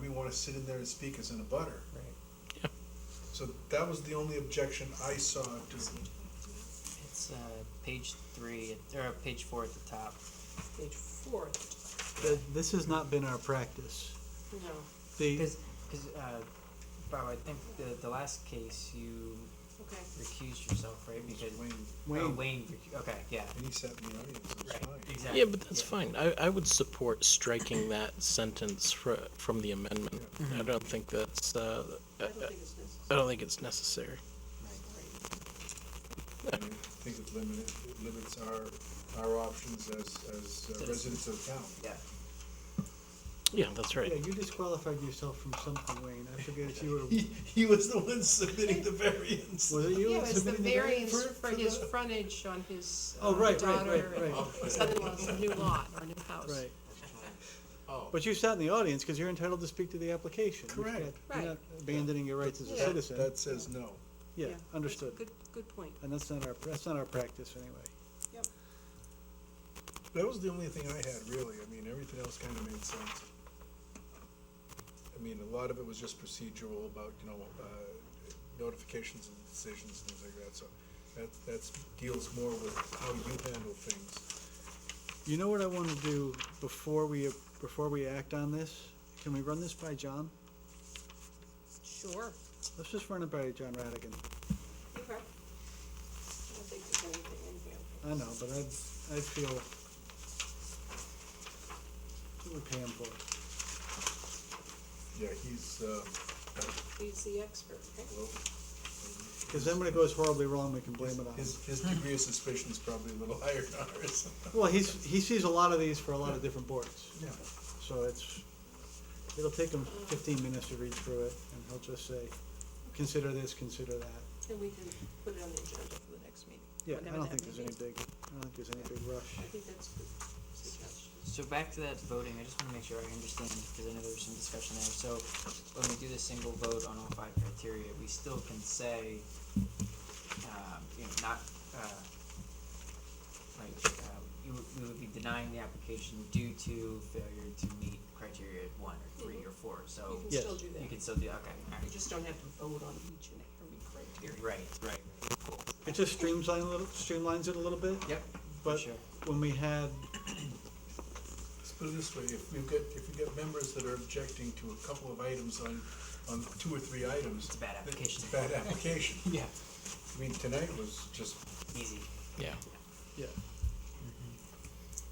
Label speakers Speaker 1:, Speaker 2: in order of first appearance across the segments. Speaker 1: we wanna sit in there and speak as in a butter.
Speaker 2: Right.
Speaker 3: Yeah.
Speaker 1: So that was the only objection I saw to,
Speaker 2: It's uh, page three or page four at the top.
Speaker 4: Page four,
Speaker 5: Th- This has not been our practice.
Speaker 4: no,
Speaker 5: The,
Speaker 2: Because, because, uh, Bob, I think the the last case you
Speaker 4: okay.
Speaker 2: recused yourself, right? Because
Speaker 1: Wayne,
Speaker 2: Oh,
Speaker 5: Wayne,
Speaker 2: Wayne. recu- Okay. Yeah.
Speaker 1: and he sat in the audience, it was
Speaker 2: Right.
Speaker 1: fine.
Speaker 2: Exactly.
Speaker 3: Yeah, but that's fine. I, I would support striking that sentence fr- from the amendment. I don't think that's, uh, I,
Speaker 4: I
Speaker 3: I
Speaker 4: don't think it's necessary.
Speaker 3: I don't
Speaker 1: I
Speaker 3: think it's necessary.
Speaker 1: mean, I think it limits, it limits our, our options as, as uh,
Speaker 2: Citizens.
Speaker 1: residents of town.
Speaker 2: Yeah.
Speaker 3: Yeah, that's
Speaker 5: yeah,
Speaker 3: right.
Speaker 5: you disqualified yourself from something, Wayne. I forget if you were,
Speaker 1: He, he was the one submitting the variance.
Speaker 5: was it you?
Speaker 4: Yeah,
Speaker 5: that
Speaker 4: it's the
Speaker 5: submitted
Speaker 4: variance
Speaker 1: for-
Speaker 4: for
Speaker 1: for
Speaker 4: his
Speaker 1: the-
Speaker 4: frontage on his uh,
Speaker 5: Oh, right, right,
Speaker 4: daughter
Speaker 5: right,
Speaker 4: and
Speaker 5: right,
Speaker 4: son-in-law's new lot or new house.
Speaker 5: right.
Speaker 1: Oh.
Speaker 5: But you sat in the audience because you're entitled to speak to the application. You're
Speaker 1: Correct.
Speaker 5: not-
Speaker 4: Right.
Speaker 5: You're not abandoning your rights as a
Speaker 4: Yeah.
Speaker 5: citizen.
Speaker 1: That says no.
Speaker 5: Yeah,
Speaker 4: that's a
Speaker 5: understood.
Speaker 4: Good, good point.
Speaker 5: And that's not our, that's not our practice anyway.
Speaker 4: Yep.
Speaker 1: That was the only thing I had, really. I mean, everything else kind of made sense. I mean, a lot of it was just procedural about, you know, uh, notifications and decisions and things like that, so that, that's, deals more with how you handle things.
Speaker 5: You know what I want to do before we, before we act on this? Can we run this by John?
Speaker 4: Sure.
Speaker 5: Let's just run it by John Radigan.
Speaker 4: Okay. I don't think there's anything in here.
Speaker 5: I know, but I'd, I'd feel, what we pay him for?
Speaker 1: Yeah, he's, um,
Speaker 4: He's the expert, right?
Speaker 1: well,
Speaker 5: Because then when it goes horribly wrong, we can blame it on him.
Speaker 1: his, his degree of suspicion is probably a little higher than ours.
Speaker 5: Well, he's, he sees a lot of these for a lot of different boards,
Speaker 1: Yeah.
Speaker 5: so it's, it'll take him fifteen minutes to read through it, and he'll just say, consider this, consider that.
Speaker 4: And we can put it on the agenda for the next meeting.
Speaker 5: Yeah, I
Speaker 4: whenever
Speaker 5: don't
Speaker 4: that
Speaker 5: think there's
Speaker 4: meeting
Speaker 5: any
Speaker 4: is.
Speaker 5: big, I don't think there's any big
Speaker 4: I
Speaker 5: rush.
Speaker 4: think that's a good suggestion.
Speaker 2: So back to that voting, I just want to make sure I understand because I know there was some discussion there. So when we do the single vote on all five criteria, we still can say, um, you know, not, uh, like, uh, you, would- we would be denying the application due to failure to meet criteria one or three or four.
Speaker 4: Mm-hmm. You
Speaker 2: So
Speaker 4: can
Speaker 5: Yes.
Speaker 4: still do
Speaker 2: you
Speaker 4: that.
Speaker 2: can still do, okay, all
Speaker 4: You
Speaker 2: right.
Speaker 4: just don't have to vote on each and every criteria.
Speaker 2: Right, right, right. Cool.
Speaker 5: It just streamlines a little, streamlines it a little bit,
Speaker 2: Yep, for
Speaker 5: but
Speaker 2: sure.
Speaker 5: when we had,
Speaker 1: Let's put it this way, if we've got, if we've got members that are objecting to a couple of items on, on two or three items.
Speaker 2: It's a bad application.
Speaker 1: It's a bad application.
Speaker 2: Yeah.
Speaker 1: I mean, tonight was just,
Speaker 2: Easy.
Speaker 3: Yeah.
Speaker 5: yeah. Mm-hmm.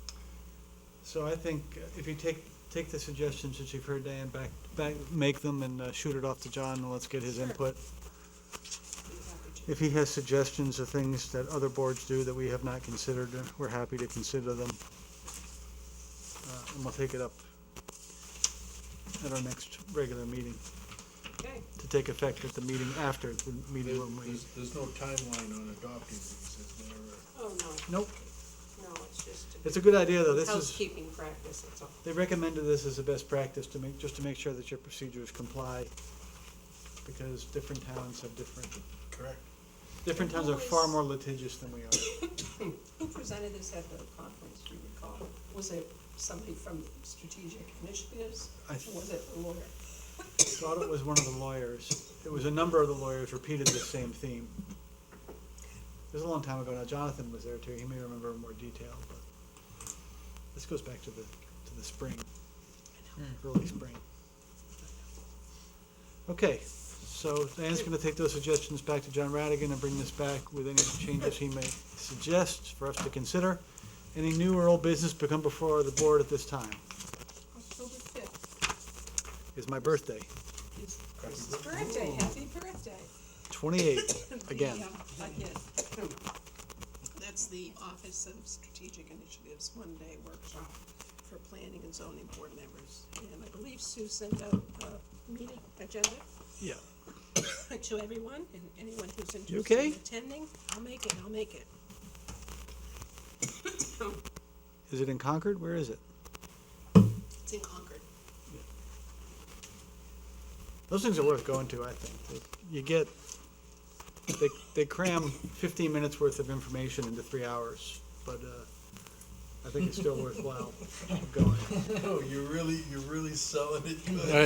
Speaker 5: So I think uh, if you take, take the suggestions that you've heard, Dan, back, back, make them and uh, shoot it off to John, and let's get his
Speaker 4: Sure.
Speaker 5: input.
Speaker 4: Be happy to.
Speaker 5: If he has suggestions of things that other boards do that we have not considered, uh, we're happy to consider them. Uh, And we'll take it up at our next regular meeting,
Speaker 4: Okay,
Speaker 5: to take effect at the meeting after the meeting when we.
Speaker 1: there's, there's no timeline on adopting these, is there?
Speaker 4: oh,
Speaker 5: Nope,
Speaker 4: no, no, it's just a.
Speaker 5: it's a good idea, though, this is,
Speaker 4: Housekeeping practice, that's all.
Speaker 5: they recommended this as the best practice to make, just to make sure that your procedures comply, because different towns have different,
Speaker 1: Correct.
Speaker 5: different towns are far more litigious than we are.
Speaker 4: Who presented this at the conference, do you recall? Was it somebody from strategic initiatives?
Speaker 5: I
Speaker 4: Or was it a lawyer?
Speaker 5: thought it was one of the lawyers. It was a number of the lawyers repeated the same theme. It was a long time ago now. Jonathan was there too. He may remember in more detail, but this goes back to the to the spring, early spring. Okay, so Dan's going to take those suggestions back to John Radigan and bring this back with any changes he may suggest for us to consider. Any new or old business become before the board at this time
Speaker 4: October fifth
Speaker 5: is my birthday,
Speaker 4: is Chris's birthday, happy birthday.
Speaker 5: twenty-eight, again.
Speaker 4: The, um, Again. That's the Office of Strategic Initiatives one-day workshop for planning and zoning board members. And I believe Sue sent out a meeting agenda
Speaker 5: Yeah.
Speaker 4: to everyone and anyone who's
Speaker 5: You
Speaker 4: interested
Speaker 5: okay?
Speaker 4: in attending. I'll make it, I'll make it.
Speaker 5: Is it in Concord? Where is it?
Speaker 4: It's in Concord.
Speaker 5: Those things are worth going to, I think. You get, they, they cram fifteen minutes worth of information into three hours, but, uh, I think it's still worthwhile going.
Speaker 1: Oh, you're really, you're really selling it good.